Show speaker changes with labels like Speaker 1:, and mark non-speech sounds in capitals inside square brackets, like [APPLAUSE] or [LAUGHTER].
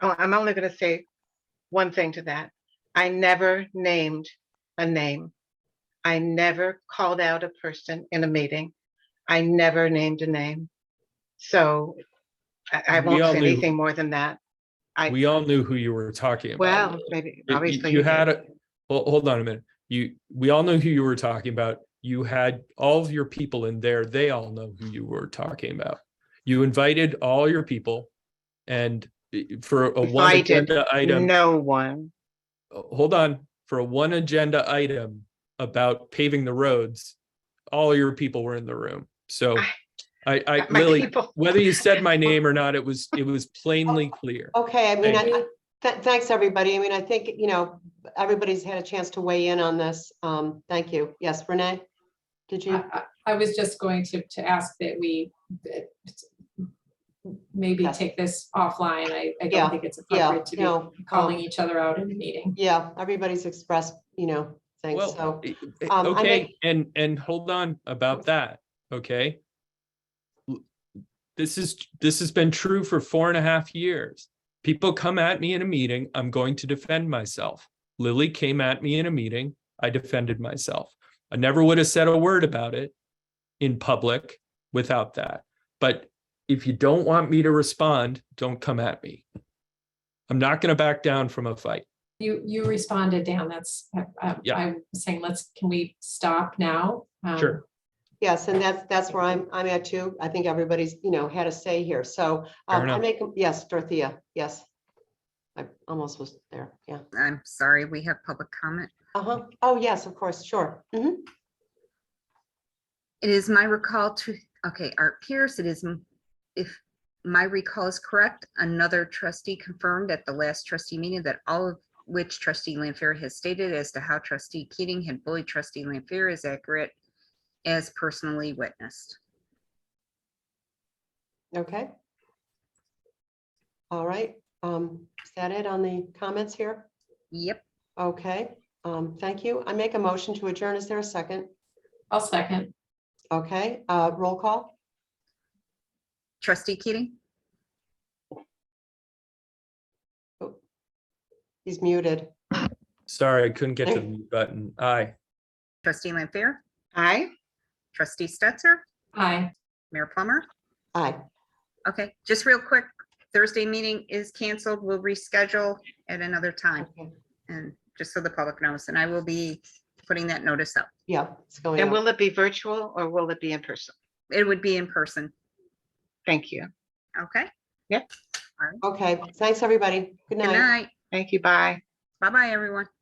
Speaker 1: Oh, I'm only gonna say one thing to that. I never named a name. I never called out a person in a meeting. I never named a name. So I, I
Speaker 2: We
Speaker 1: won't
Speaker 2: all
Speaker 1: say
Speaker 2: knew.
Speaker 1: anything more than that. I-
Speaker 2: We all knew who you were talking about.
Speaker 1: Well,
Speaker 2: Lily.
Speaker 1: maybe,
Speaker 2: You-
Speaker 1: obviously.
Speaker 2: You
Speaker 1: did.
Speaker 2: had, a well, hold on a minute. You, we all know who you were talking about. You had all of your people in there. They all know who you were talking about. You invited all your people and eh, for a one
Speaker 1: Invited,
Speaker 2: agenda item, oh,
Speaker 1: No one.
Speaker 2: hold on, for a one agenda item about paving the roads, all your people were in the room. So
Speaker 1: I-
Speaker 2: I, I,
Speaker 1: My
Speaker 2: Lily,
Speaker 1: people-
Speaker 2: whether you
Speaker 1: [LAUGHS]
Speaker 2: said my name or not, it was, it was plainly clear.
Speaker 3: Okay, I mean, I,
Speaker 2: Thank
Speaker 3: I- th- thanks, everybody. I mean, I think, you know, everybody's had a chance to weigh in on this. Um, thank you. Yes, Renee? Did you?
Speaker 4: I- I I was just going to, to ask that we that maybe
Speaker 3: Yeah.
Speaker 4: take this offline. I, I
Speaker 3: Yeah,
Speaker 4: don't think it's
Speaker 3: Yeah,
Speaker 4: appropriate to
Speaker 3: no.
Speaker 4: be
Speaker 3: um,
Speaker 4: calling each other out in a meeting.
Speaker 3: Yeah, everybody's expressed, you know, things,
Speaker 2: Well,
Speaker 3: so,
Speaker 2: i- i-
Speaker 3: um, I
Speaker 2: Okay,
Speaker 3: make-
Speaker 2: and, and hold on about that, okay? L- This is, this has been true for four and a half years. People come at me in a meeting, I'm going to defend myself. Lily came at me in a meeting, I defended myself. I never would have said a word about it in public without that. But if you don't want me to respond, don't come at me. I'm not gonna back down from a fight.
Speaker 4: You, you responded, Dan, that's, I- I-
Speaker 2: Yeah.
Speaker 4: I'm saying, let's, can we stop now? Um,
Speaker 2: Sure.
Speaker 3: yes, and that's, that's where I'm, I'm at too. I think everybody's, you know, had a say here, so.
Speaker 2: Fair
Speaker 3: um, I
Speaker 2: enough.
Speaker 3: make, yes, Dorothea, yes. I almost was there, yeah.
Speaker 5: I'm sorry, we have public comment.
Speaker 3: Uh-huh. Oh, yes, of course, sure. Mhm.
Speaker 5: It is my recall to, okay, Art Pierce, it is, m- if my recall is correct, another trustee confirmed at the last trustee meeting that all of which trustee Lamfair has stated as to how trustee Keating had bullied trustee Lamfair is accurate as personally witnessed.
Speaker 3: Okay. All right, um, is that it on the comments here?
Speaker 5: Yep,
Speaker 3: Okay, um, thank you. I make a motion to adjourn. Is there a second?
Speaker 4: I'll second.
Speaker 3: Okay, uh, roll call?
Speaker 5: trustee Keating,
Speaker 3: He's muted.
Speaker 2: Sorry, I couldn't get to the
Speaker 3: Hey.
Speaker 2: mute button. Aye.
Speaker 5: trustee Lamfair,
Speaker 1: Aye.
Speaker 5: trustee Stetser,
Speaker 4: Aye.
Speaker 5: Mayor Plummer.
Speaker 3: Aye.
Speaker 5: Okay, just real quick, Thursday meeting is canceled. We'll reschedule at another time.
Speaker 3: Okay.
Speaker 5: And just so the public knows, and I will be putting that notice up.
Speaker 3: Yeah, it's going
Speaker 1: And
Speaker 3: out.
Speaker 1: will it be virtual or will it be in person?
Speaker 5: It would be in person,
Speaker 1: Thank you.
Speaker 5: okay?
Speaker 3: Okay, thanks, everybody. Good
Speaker 5: Good
Speaker 3: night.
Speaker 5: night.
Speaker 1: Thank you. Bye.
Speaker 5: Bye-bye, everyone.